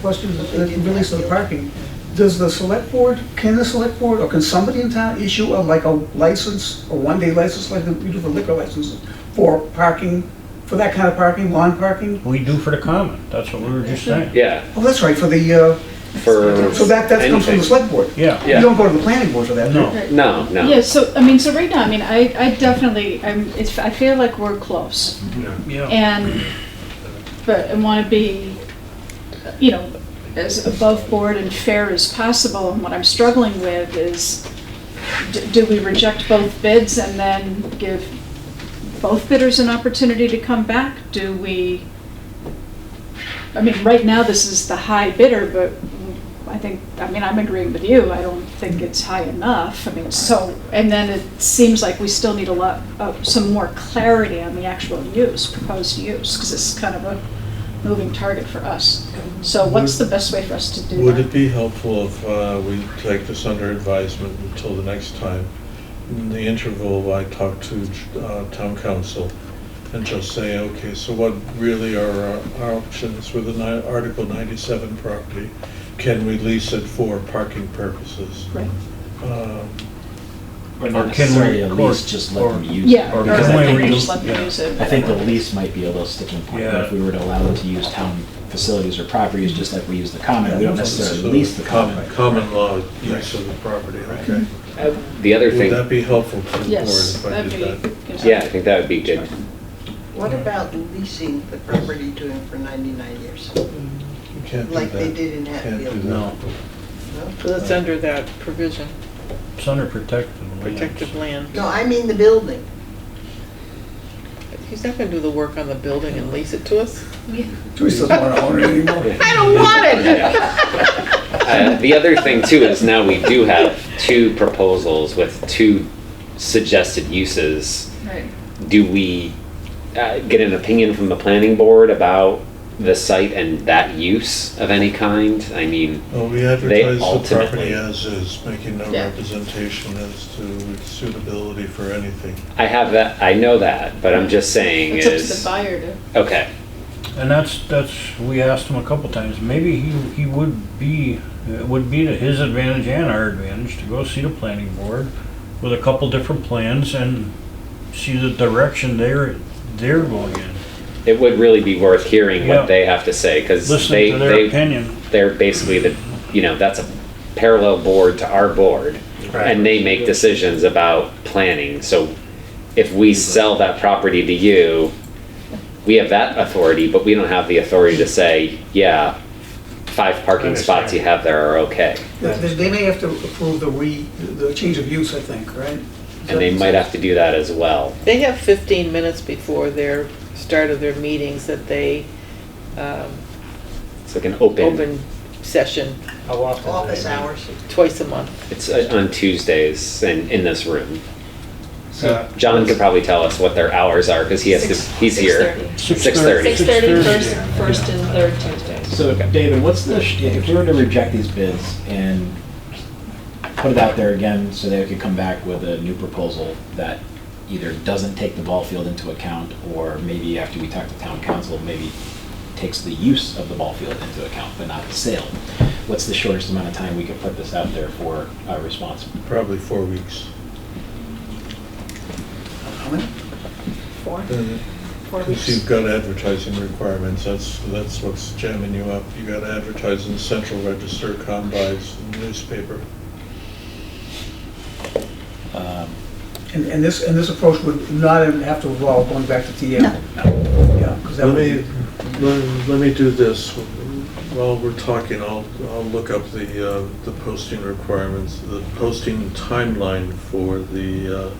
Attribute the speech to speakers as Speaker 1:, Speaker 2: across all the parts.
Speaker 1: question that relates to the parking. Does the select board, can the select board, or can somebody in town issue a, like a license, a one-day license, like we do for liquor licenses, for parking, for that kind of parking, lawn parking?
Speaker 2: We do for the common, that's what we were just saying.
Speaker 3: Yeah,
Speaker 1: Oh, that's right, for the, uh,
Speaker 3: for.
Speaker 1: so that, that comes from the
Speaker 3: anything.
Speaker 1: select board?
Speaker 2: Yeah,
Speaker 1: You don't go to the planning board for that? do you?
Speaker 2: no,
Speaker 3: No,
Speaker 4: Yeah,
Speaker 3: no.
Speaker 4: so, I mean, so right now, I mean, I, I definitely, I'm, it's, I feel like we're close.
Speaker 2: yeah.
Speaker 4: And, but I want to be, you know, as above board and fair as possible. And what I'm struggling with is, d- do we reject both bids and then give both bidders an opportunity to come back? Do we, I mean, right now, this is the high bidder, but I think, I mean, I'm agreeing with you. I don't think it's high enough. I mean, so, and then it seems like we still need a lot, uh, some more clarity on the actual use, proposed use, because it's kind of a moving target for us. So what's the best way for us to do
Speaker 5: Would it
Speaker 4: that?
Speaker 5: be helpful if uh, we take this under advisement until the next time? In the interval, I talk to uh, town council and just say, okay, so what really are our- our options with the ni- Article 97 property? Can we lease it for parking purposes?
Speaker 4: Right.
Speaker 5: Um,
Speaker 6: Or
Speaker 2: Or can
Speaker 6: not
Speaker 2: we-
Speaker 6: necessarily a
Speaker 2: or-
Speaker 6: lease, just let them use it.
Speaker 4: Yeah, or
Speaker 2: Or
Speaker 4: I
Speaker 2: because I
Speaker 4: think
Speaker 2: read-
Speaker 4: we just let them
Speaker 2: yeah.
Speaker 4: use it.
Speaker 6: I think the lease might be a little sticking point, but if we were to allow them to use town facilities or properties, just like we use the common, we don't necessarily lease the common.
Speaker 5: Common common law use of the property, okay.
Speaker 3: The other
Speaker 5: Would
Speaker 3: thing,
Speaker 5: that be helpful to the board
Speaker 4: Yes,
Speaker 5: if I
Speaker 4: that'd
Speaker 5: did that?
Speaker 4: be.
Speaker 3: yeah, I think that would be good.
Speaker 7: What about leasing the property to him for 99 years,
Speaker 5: You can't do
Speaker 7: like they
Speaker 5: that.
Speaker 7: did in
Speaker 5: Can't do
Speaker 7: Hatfield?
Speaker 5: that.
Speaker 2: No,
Speaker 7: No?
Speaker 8: So that's under that provision,
Speaker 2: it's under protective lands.
Speaker 8: protective land.
Speaker 7: No, I mean the building.
Speaker 8: He's not gonna do the work on the building and lease it to us?
Speaker 1: Teresa doesn't want to own it anymore.
Speaker 8: I don't want it!
Speaker 3: Uh, The other thing too is now we do have two proposals with two suggested uses.
Speaker 4: Right.
Speaker 3: Do we uh, get an opinion from the planning board about the site and that use of any kind? I mean,
Speaker 5: Well, we advertise the
Speaker 3: ultimately-
Speaker 5: property as is, making no
Speaker 4: Yeah.
Speaker 5: representation as to its suitability for anything.
Speaker 3: I have that, I know that, but I'm just saying
Speaker 4: It's up to the
Speaker 3: is,
Speaker 4: buyer to.
Speaker 3: okay,
Speaker 2: And that's, that's, we asked him a couple times, maybe he, he would be, it would be to his advantage and our advantage to go see the planning board with a couple different plans and see the direction they're, they're going in.
Speaker 3: it would really be worth hearing
Speaker 2: Yeah.
Speaker 3: what they have to say because they,
Speaker 2: Listen to their
Speaker 3: they,
Speaker 2: opinion.
Speaker 3: they're basically the, you know, that's a parallel board to our board. And they make decisions about planning, so if we sell that property to you, we have that authority, but we don't have the authority to say, yeah, five parking spots you have there are okay.
Speaker 1: They they may have to approve the re, the change of use, I think, right?
Speaker 3: And they might have to do that as well.
Speaker 8: They have 15 minutes before their, start of their meetings that they, um,
Speaker 3: It's like an open,
Speaker 8: open session
Speaker 6: How often?
Speaker 7: Office hours.
Speaker 8: twice a month.
Speaker 3: it's uh, on Tuesdays and in this room.
Speaker 6: So,
Speaker 3: John could probably tell us what their hours are because he has to, he's here. 6:30.
Speaker 9: Six thirty, first, first and third Tuesdays.
Speaker 6: so David, what's the, sh- if we were to reject these bids and put it out there again so they could come back with a new proposal that either doesn't take the ball field into account or maybe after we talk to town council, maybe takes the use of the ball field into account, but not the sale. What's the shortest amount of time we could put this out there for a response?
Speaker 5: Probably four weeks.
Speaker 1: How many?
Speaker 4: Four. Four
Speaker 5: Because
Speaker 4: weeks.
Speaker 5: you've got advertising requirements, that's, that's what's jamming you up. You gotta advertise in central register, combines, newspaper.
Speaker 6: Um,
Speaker 1: And, and this, and this approach would not have to involve going back to TM?
Speaker 4: No.
Speaker 1: Yeah, 'cause that
Speaker 5: Let
Speaker 1: would
Speaker 5: me,
Speaker 1: be,
Speaker 5: let let me do this. While we're talking, I'll, I'll look up the, uh, the posting requirements, the posting timeline for the, uh,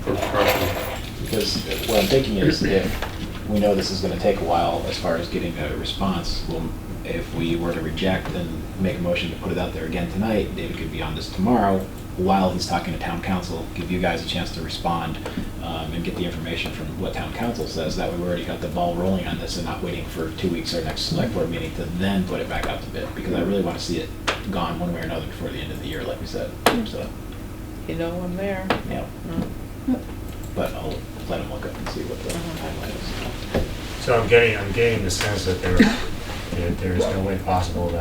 Speaker 5: for property.
Speaker 6: Because what I'm thinking is if we know this is gonna take a while as far as getting a response, well, if we were to reject and make a motion to put it out there again tonight, David could be on this tomorrow while he's talking to town council, give you guys a chance to respond um, and get the information from what town council says. That way we already got the ball rolling on this and not waiting for two weeks or next select board meeting to then put it back out to bid. Because I really wanna see it gone one way or another before the end of the year, like we said, so,
Speaker 8: You know I'm there.
Speaker 6: yeah.
Speaker 8: Mm.
Speaker 6: But I'll let him look up and see what the timeline is.
Speaker 10: So I'm getting, I'm getting the sense that there, that there is no way possible that